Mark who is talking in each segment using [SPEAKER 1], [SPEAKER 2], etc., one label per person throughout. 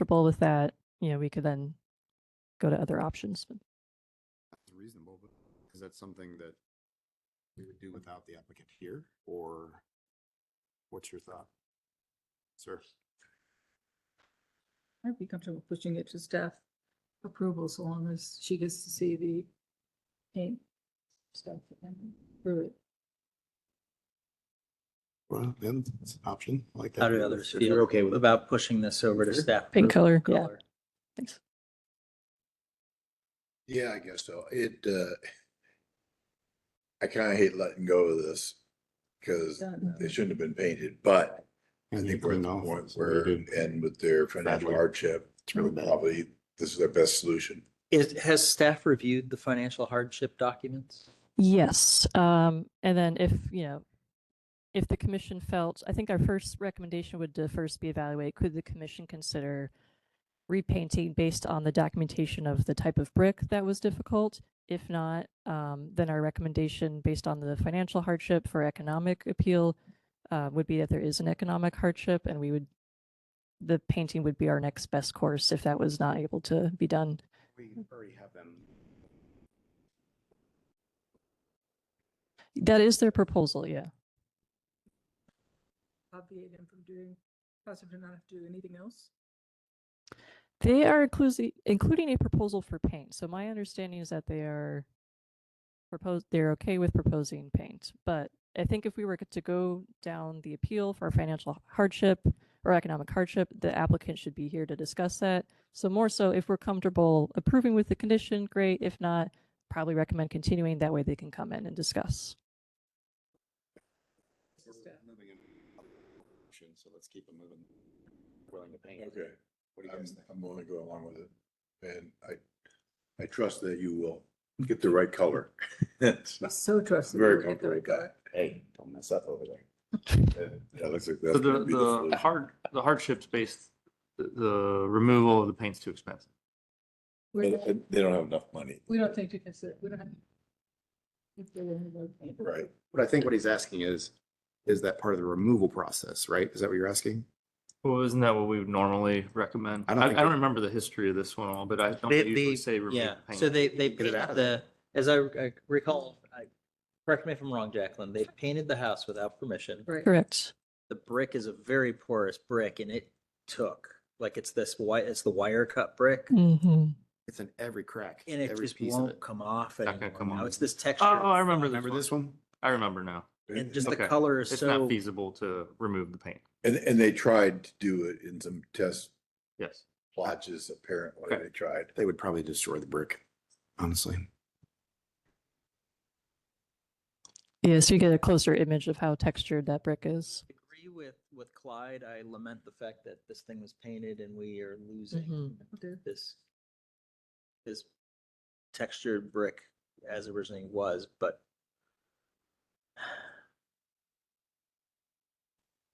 [SPEAKER 1] comfortable with that, you know, we could then go to other options.
[SPEAKER 2] That's reasonable, but is that something that we would do without the applicant here, or what's your thought? Sir,
[SPEAKER 3] I'd be comfortable pushing it to staff approval so long as she gets to see the paint stuff and through it.
[SPEAKER 2] well, then it's an option I like that.
[SPEAKER 4] How do others
[SPEAKER 5] If you're
[SPEAKER 4] feel
[SPEAKER 5] okay with it.
[SPEAKER 4] about pushing this over to
[SPEAKER 2] Sure.
[SPEAKER 4] staff?
[SPEAKER 1] Pink color, yeah.
[SPEAKER 4] color?
[SPEAKER 1] Thanks.
[SPEAKER 6] Yeah, I guess so. It, uh, I kind of hate letting go of this because
[SPEAKER 3] Done.
[SPEAKER 6] they shouldn't have been painted, but I
[SPEAKER 2] And you
[SPEAKER 6] think we're at
[SPEAKER 2] clean
[SPEAKER 6] the
[SPEAKER 2] off,
[SPEAKER 6] point
[SPEAKER 2] so we
[SPEAKER 6] where,
[SPEAKER 2] did-
[SPEAKER 6] and with their financial
[SPEAKER 2] Badly.
[SPEAKER 6] hardship,
[SPEAKER 2] It's really bad.
[SPEAKER 6] probably this is their best solution.
[SPEAKER 4] Is, has staff reviewed the financial hardship documents?
[SPEAKER 1] Yes, um, and then if, you know, if the commission felt, I think our first recommendation would to first be evaluate, could the commission consider repainting based on the documentation of the type of brick that was difficult? If not, um, then our recommendation based on the financial hardship for economic appeal uh, would be that there is an economic hardship and we would, the painting would be our next best course if that was not able to be done.
[SPEAKER 2] We already have them.
[SPEAKER 1] That is their proposal, yeah.
[SPEAKER 3] Obviate him from doing, cause him to not have to do anything else.
[SPEAKER 1] They are including including a proposal for paint. So my understanding is that they are propose they're okay with proposing paint. But I think if we were to go down the appeal for financial hardship or economic hardship, the applicant should be here to discuss that. So more so, if we're comfortable approving with the condition, great. If not, probably recommend continuing. That way they can come in and discuss.
[SPEAKER 2] We're moving in other direction, So let's keep it moving. Willing to paint.
[SPEAKER 6] Okay,
[SPEAKER 2] What do you
[SPEAKER 6] I'm,
[SPEAKER 2] guys think?
[SPEAKER 6] I'm going to go along with it. And I, I trust that you will get the right color. It's not-
[SPEAKER 3] So trusted.
[SPEAKER 6] Very comfortable with that.
[SPEAKER 2] Hey, don't mess up over there.
[SPEAKER 6] That looks like
[SPEAKER 5] So
[SPEAKER 6] that's
[SPEAKER 5] the,
[SPEAKER 6] gonna be the
[SPEAKER 5] the
[SPEAKER 6] solution.
[SPEAKER 5] hard, the hardship's based, the, the removal of the paint's too expensive.
[SPEAKER 6] And-
[SPEAKER 3] We're-
[SPEAKER 6] and They don't have enough money,
[SPEAKER 3] We don't think to consider, we don't have. If they're in the paint.
[SPEAKER 6] right?
[SPEAKER 2] But I think what he's asking is, is that part of the removal process, right? Is that what you're asking?
[SPEAKER 5] Well, isn't that what we would normally recommend?
[SPEAKER 2] I
[SPEAKER 5] I,
[SPEAKER 2] don't
[SPEAKER 5] I
[SPEAKER 2] think
[SPEAKER 5] don't
[SPEAKER 2] it-
[SPEAKER 5] remember the history of this one all, but I don't
[SPEAKER 4] They-
[SPEAKER 5] usually
[SPEAKER 4] they-
[SPEAKER 5] say remove
[SPEAKER 4] Yeah,
[SPEAKER 5] the
[SPEAKER 4] so
[SPEAKER 5] paint.
[SPEAKER 4] they,
[SPEAKER 2] Get
[SPEAKER 4] they
[SPEAKER 2] it
[SPEAKER 4] painted
[SPEAKER 2] out of
[SPEAKER 4] the, as I I recall, I, correct me if I'm wrong, Jacqueline, they painted the house without permission.
[SPEAKER 3] Right.
[SPEAKER 1] Correct.
[SPEAKER 4] The brick is a very porous brick and it took, like it's this white, it's the wire cut brick.
[SPEAKER 1] hmm
[SPEAKER 2] It's in every crack,
[SPEAKER 4] And it
[SPEAKER 2] every
[SPEAKER 4] just
[SPEAKER 2] piece of
[SPEAKER 4] won't
[SPEAKER 2] it.
[SPEAKER 4] come off
[SPEAKER 5] Not gonna
[SPEAKER 4] anymore.
[SPEAKER 5] come
[SPEAKER 4] Now
[SPEAKER 5] off.
[SPEAKER 4] it's this texture.
[SPEAKER 5] Oh, oh, I remember this
[SPEAKER 2] Remember
[SPEAKER 5] one.
[SPEAKER 2] this one?
[SPEAKER 5] I remember now.
[SPEAKER 4] And just the
[SPEAKER 5] Okay.
[SPEAKER 4] color is
[SPEAKER 5] It's
[SPEAKER 4] so.
[SPEAKER 5] not feasible to remove the paint.
[SPEAKER 6] And, and they tried to do it in some test
[SPEAKER 5] Yes.
[SPEAKER 6] plotches, apparently,
[SPEAKER 5] Okay.
[SPEAKER 6] they tried.
[SPEAKER 2] They would probably destroy the brick, honestly.
[SPEAKER 1] Yeah, so you get a closer image of how textured that brick is.
[SPEAKER 4] agree with with Clyde. I lament the fact that this thing was painted and we are losing
[SPEAKER 1] Mhm.
[SPEAKER 3] Okay.
[SPEAKER 4] this this textured brick as originally was, but
[SPEAKER 2] I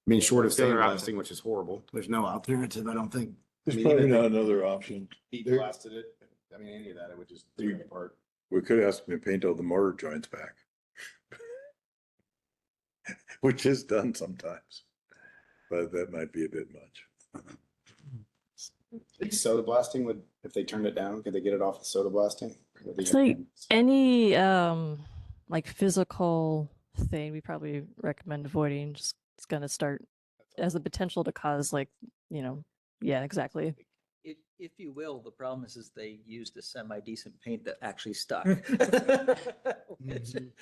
[SPEAKER 2] mean, short of
[SPEAKER 5] The other option.
[SPEAKER 2] sandblasting, which is horrible. There's no alternative, I don't think.
[SPEAKER 6] There's
[SPEAKER 2] mean,
[SPEAKER 6] probably
[SPEAKER 2] even if-
[SPEAKER 6] not another option.
[SPEAKER 2] He
[SPEAKER 6] There-
[SPEAKER 2] blasted it. I mean, any of that, it would just tear it apart.
[SPEAKER 6] We could ask them to paint all the mortar joints back. Which is done sometimes, but that might be a bit much.
[SPEAKER 2] Soda blasting would, if they turned it down, could they get it off with soda blasting? Would they
[SPEAKER 1] It's
[SPEAKER 2] get-
[SPEAKER 1] like any um like physical thing we probably recommend avoiding just it's going to start as the potential to cause like you know yeah exactly
[SPEAKER 4] if if you will, the problem is is they used a semi decent paint that actually stuck.
[SPEAKER 6] Mm-hmm.
[SPEAKER 2] Mhm.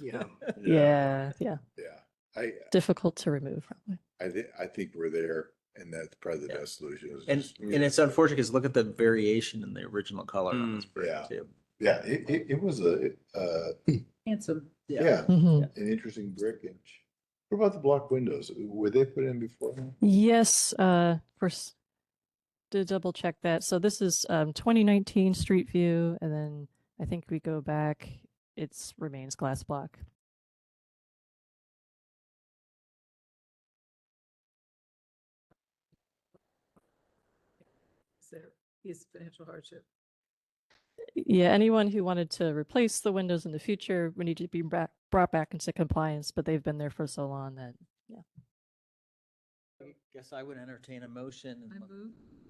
[SPEAKER 2] Yeah.
[SPEAKER 1] yeah yeah
[SPEAKER 6] Yeah, I,
[SPEAKER 1] difficult to remove probably
[SPEAKER 6] I thi- I think we're there and that's probably the
[SPEAKER 4] Yeah.
[SPEAKER 6] best solution. is
[SPEAKER 4] And
[SPEAKER 6] just-
[SPEAKER 4] and it's unfortunate because look at the variation in the original color on this brick
[SPEAKER 6] Mm. Yeah.
[SPEAKER 4] too.
[SPEAKER 6] Yeah, it, it, it was a, uh,
[SPEAKER 3] Handsome.
[SPEAKER 6] yeah,
[SPEAKER 1] Mhm.
[SPEAKER 6] an interesting brick and what about the block windows? Were they put in before?
[SPEAKER 1] yes uh of course to double check that so this is um 2019 street view and then i think we go back it's remains glass block
[SPEAKER 3] Is there, is financial hardship.
[SPEAKER 1] Yeah, anyone who wanted to replace the windows in the future would need to be back, brought back into compliance, but they've been there for so long that
[SPEAKER 4] Guess I would entertain a motion
[SPEAKER 3] I
[SPEAKER 4] and look
[SPEAKER 3] move